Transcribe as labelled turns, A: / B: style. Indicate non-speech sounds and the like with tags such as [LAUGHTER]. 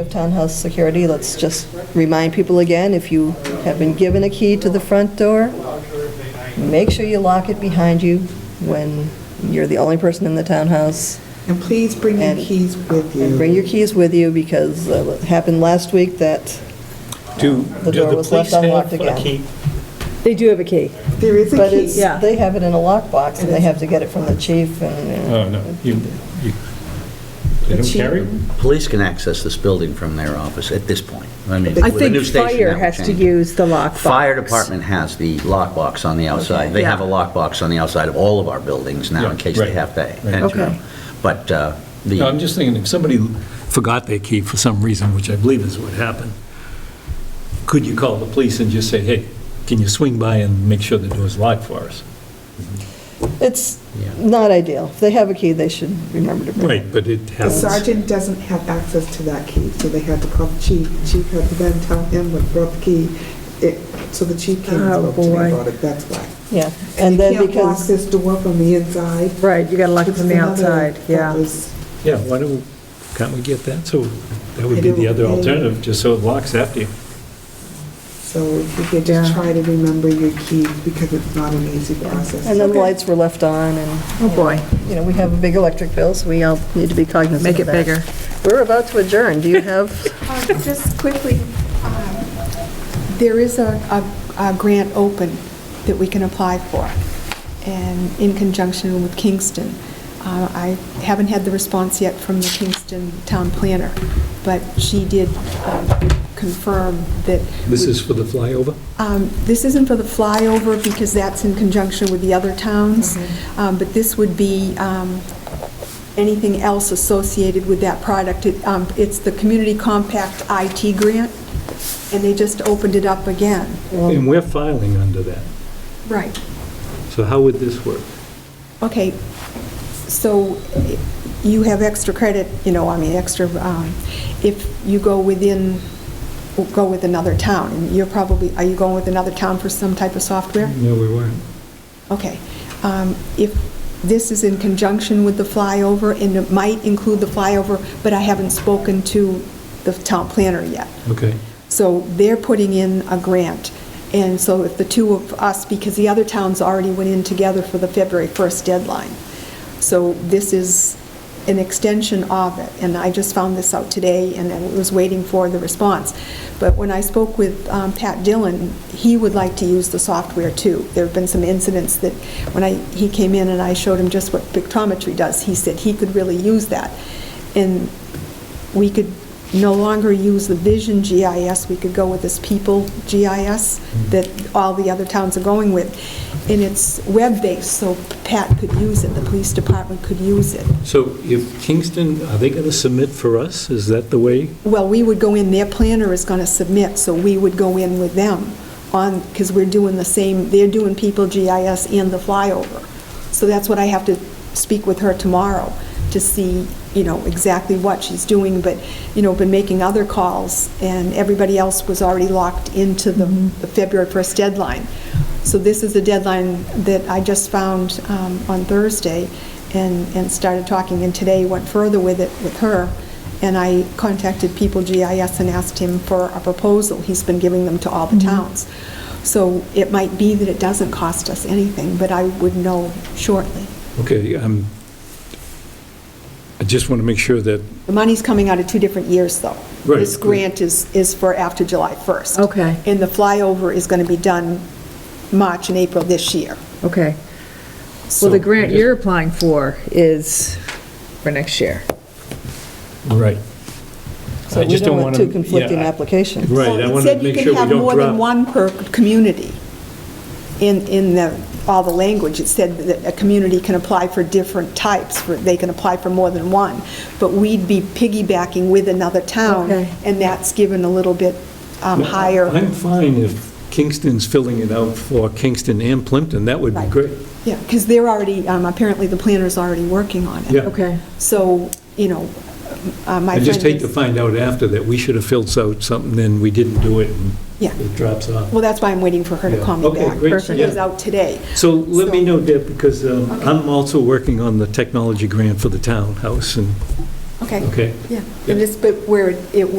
A: Of Townhouse security, let's just remind people again, if you have been given a key to the front door, make sure you lock it behind you when you're the only person in the townhouse.
B: And please bring your
A: And-
B: keys with you.
A: And bring your keys with you because uh, what happened last week that,
C: Do,
A: The
C: do
A: door
C: the
A: was left
C: police have
A: unlocked
C: a
A: again.
C: key?
D: They do have a key.
B: There is a
A: but it's,
B: key.
D: yeah.
A: they have it in a lockbox and they have to get it from the chief and, uh,
C: Oh, no, you, you, they don't carry? them?
E: Police can access this building from their office at this point. I mean,
D: I
E: with the new station,
D: think fire
E: that will
D: has to
E: change.
D: use the lockbox.
E: Fire department has the lockbox on the outside. They
D: Yeah.
E: have a lockbox on the outside of all of our buildings now in
C: Yeah,
E: case they
C: right,
E: have to
C: right.
E: enter
A: Okay.
E: them. But uh,
C: No, I'm
E: the,
C: just thinking, if somebody forgot their key for some reason, which I believe is what happened, could you call the police and just say, hey, can you swing by and make sure the door's locked for us?
A: it's
E: Yeah.
A: not ideal. If they have a key, they should remember to bring it.
C: Right, but it
B: The
C: happens.
B: sergeant doesn't have access to that key, so they had to call the chief. Chief had to then tell him what brought the key. It- So the chief came and
D: Oh,
B: spoke to me
D: boy.
B: about it, that's why.
A: Yeah, and
B: you
A: then
B: can't lock
A: because,
B: this door from the inside.
D: Right, you gotta lock it
B: It's
D: from the
B: another-
D: outside,
B: that
D: yeah.
B: was-
C: Yeah, why don't, can't we get that? So that would be the other alternative, just so it locks after you.
B: So if you could
D: Yeah.
B: just try to remember your keys, because it's not an easy process.
A: and then
D: Okay.
A: lights were left on and.
D: Oh, boy,
A: you know, we have a big electric bill, so we all need to be cognizant of
D: make it
A: that.
D: bigger.
A: We're about to adjourn. Do
D: [LAUGHS]
A: you have,
F: Uh, Just quickly, um, there is a, a a grant open that we can apply for, and in conjunction with Kingston. Uh, I haven't had the response yet from the Kingston town planner, but she did um, confirm that...
C: This
F: we-
C: is for the flyover?
F: um, This isn't for the flyover because that's in conjunction with the other towns, Um, but this would be um, anything else associated with that product. It, um, It's the Community Compact IT grant, and they just opened it up again.
C: And we're filing under that.
F: Right.
C: So how would this work?
F: Okay, so eh, you have extra credit, you know, I mean, extra, um, if you go within, go with another town, and you're probably, are you going with another town for some type of software?
C: No, we weren't.
F: Okay. Um, If this is in conjunction with the flyover, and it might include the flyover, but I haven't spoken to the town planner yet.
C: Okay.
F: So they're putting in a grant. And so if the two of us, because the other towns already went in together for the February 1st deadline. So this is an extension of it. And I just found this out today and I was waiting for the response. But when I spoke with um, Pat Dillon, he would like to use the software too. There have been some incidents that when I, he came in and I showed him just what pictometry does, he said he could really use that. And we could no longer use the Vision GIS, we could go with this People GIS that all the other towns are going with. And it's web-based, so Pat could use it, the police department could use it.
C: So if Kingston, are they going to submit for us? Is that the way?
F: Well, we would go in, their planner is going to submit, so we would go in with them on, because we're doing the same, they're doing People GIS and the flyover. So that's what I have to speak with her tomorrow to see, you know, exactly what she's doing, but, you know, been making other calls, and everybody else was already locked into the the February 1st deadline. So this is the deadline that I just found um, on Thursday and, and started talking, and today went further with it with her. And I contacted People GIS and asked him for a proposal. He's been giving them to all the towns. So it might be that it doesn't cost us anything, but I would know shortly.
C: Okay, um, I just want to make sure that,
F: The money's coming out of two different years, though.
C: Right.
F: This grant is, is for after July 1st.
D: Okay.
F: And the flyover is going to be done March and April this year.
D: Okay.
C: So-
D: Well, the grant you're applying for is for next year.
C: right.
A: so
C: I
A: we
C: just
A: don't
C: don't
A: want
C: wanna-
A: two conflicting
C: yeah, I-
A: applications.
C: Right,
F: Well,
C: I
F: it
C: want to
F: said you
C: make
F: can
C: sure we
F: have
C: don't
F: more than
C: drop.
F: one per community in, in the, all the language. It said that a community can apply for different types, for- they can apply for more than one, but we'd be piggybacking with another town,
D: Okay.
F: and that's given a little bit um, higher.
C: I'm fine if Kingston's filling it out for Kingston and Plimpton, that would be
F: Right.
C: great.
F: Yeah, because they're already, um, apparently the planner's already working on it.
C: Yeah.
D: Okay.
F: So, you know, uh, my
C: I
F: friend
C: just hate to
F: is-
C: find out after that we should have filled out something and we didn't do it and
F: Yeah.
C: it drops off.
F: Well, that's why I'm waiting for her to
C: Yeah.
F: call me
C: Okay,
F: back.
C: great,
F: She was
C: yeah.
F: out today.
C: So let me
F: So-
C: know, Deb, because um, I'm also working on the technology grant for the townhouse and,
F: Okay,
C: okay?
F: yeah. And this, but where it- it would